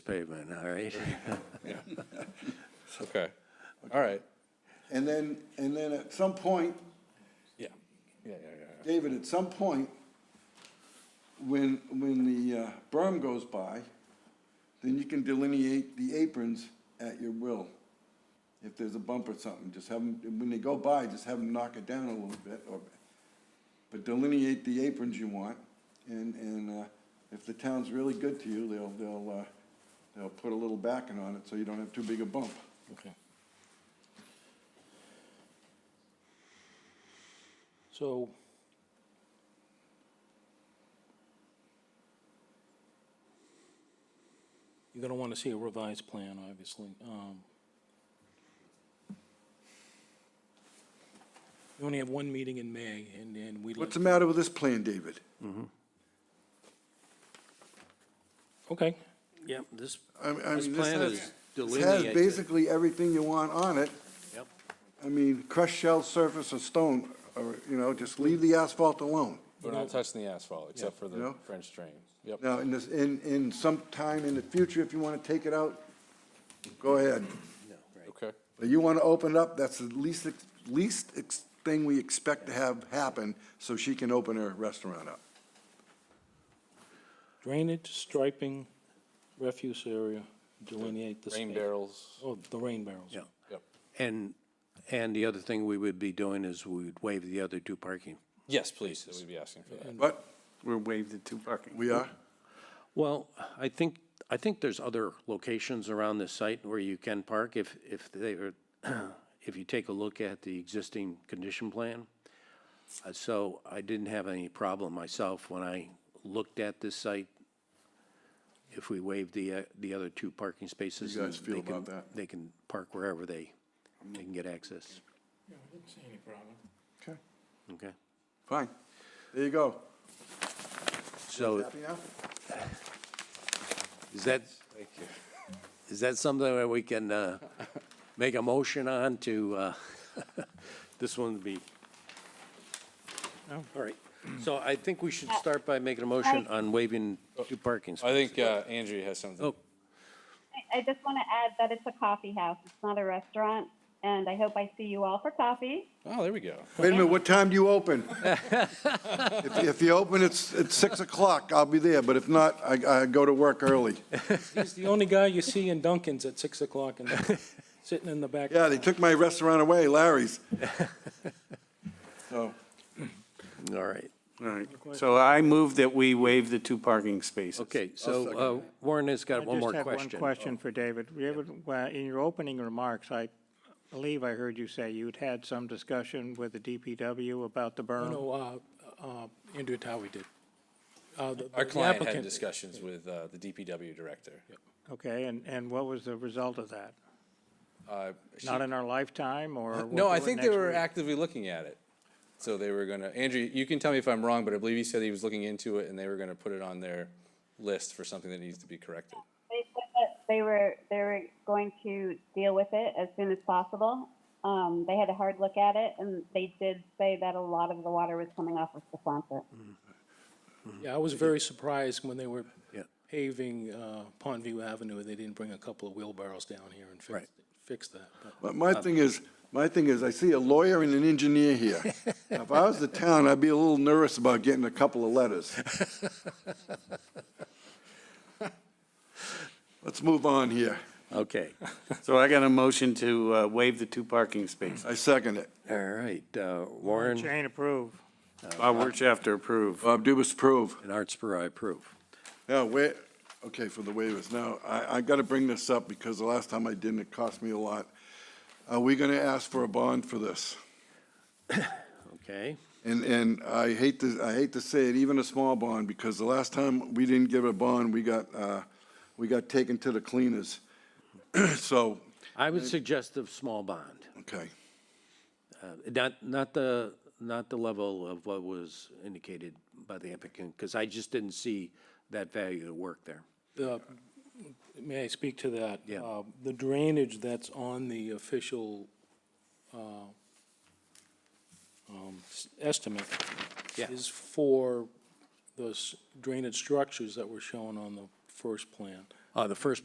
pavement, all right? Okay, all right, And then, and then at some point, yeah, yeah, yeah, yeah, David, at some point, when, when the uh, berm goes by, then you can delineate the aprons at your will. If there's a bump or something, just have them, when they go by, just have them knock it down a little bit, or, but delineate the aprons you want, and, and, uh, if the town's really good to you, they'll, they'll, uh, they'll put a little backing on it, so you don't have too big a bump. okay. So. You're gonna wanna see a revised plan, obviously. Um, You only have one meeting in May, and then we. What's the matter with this plan, David? Okay, Yep, this, I mean, I This mean, this plan has, is this has delineated. basically everything you want on it. yep, I mean, crushed shell surface or stone, or, you know, just leave the asphalt alone. We're not touching the asphalt, except for Yeah. the French drain, yep. Now, in this, in, in some time in the future, if you want to take it out, go ahead. Okay, But you want to open it up, that's the least, ex- least ex- thing we expect to have happen, so she can open her restaurant up. drainage, striping, refuse area, delineate the. rain space. barrels, Oh, the rain barrels. yep. yep. And, and the other thing we would be doing is we'd waive the other two parking. Yes, please, we'd be asking for that. But We're waived at two parking. we are, Well, I think, I think there's other locations around the site where you can park if, if they are, if you take a look at the existing condition plan. Uh, So I didn't have any problem myself when I looked at this site. If we waive the, uh, the other two parking spaces. You guys and feel they can- about that? They can park wherever they, they can get access. okay, Okay? fine. There you go. So Happy now? is that, is that something that we can uh, make a motion on to, uh, this one would be? All right. So I think we should start by making a motion on waiving two parking I spots. think uh, Andrea has something. Oh, I- I just want to add that it's a coffee house. It's not a restaurant. And I hope I see you all for coffee. Oh, there we go. Wait a minute, what time do you open? If, if you open, it's, it's six o'clock, I'll be there, but if not, I, I go to work early. He's the only guy you see in Dunkin's at six o'clock and sitting in the back. Yeah, they took my restaurant away, Larry's. So, all right. All right, so I move that we waive the two parking spaces. Okay, so uh, Warren has got one more I just have question. one question for David. David, well, in your opening remarks, I believe I heard you say you'd had some discussion with the DPW about the I berm. know, uh, uh, Andrew Towie did. Uh, the- Our the client had applicant- discussions with uh, the DPW director. Okay, and, and what was the result of that? Uh, she- Not in our lifetime, or? we'll No, do I it think they next were week? actively looking at it. So they were gonna, Andrew, you can tell me if I'm wrong, but I believe he said he was looking into it and they were gonna put it on their list for something that needs to be corrected. They said that they were they were going to deal with it as soon as possible. Um, they had a hard look at it, and they did say that a lot of the water was coming off of the Quonset. Yeah, I was very surprised when they were Yeah. paving uh, Pondview Avenue, they didn't bring a couple of wheelbarrows down here and fix, Right. fix that. but- but my thing is, my thing is, I see a lawyer and an engineer here. Now, If I was the town, I'd be a little nervous about getting a couple of letters. Let's move on here. Okay, So I got a motion to uh, waive the two parking spaces. I second it. all right. uh, Warren Jane approve. Bob Wirtschafter approve. Bob Dubus, approve. and Artsper, I approve. Now, wait, okay, for the waivers. Now, I, I gotta bring this up because the last time I didn't, it cost me a lot. Are we gonna ask for a bond for this? Okay, And, and I hate to, I hate to say it, even a small bond, because the last time we didn't give a bond, we got, uh, we got taken to the cleaners. So, I would suggest a small bond. okay, Uh, Not, not the, not the level of what was indicated by the applicant, because I just didn't see that value to work there. Uh, May I speak to that? Yeah. Uh, The drainage that's on the official uh, um, s- estimate Yeah. is for those drainage structures that were shown on the first plan. Uh, the first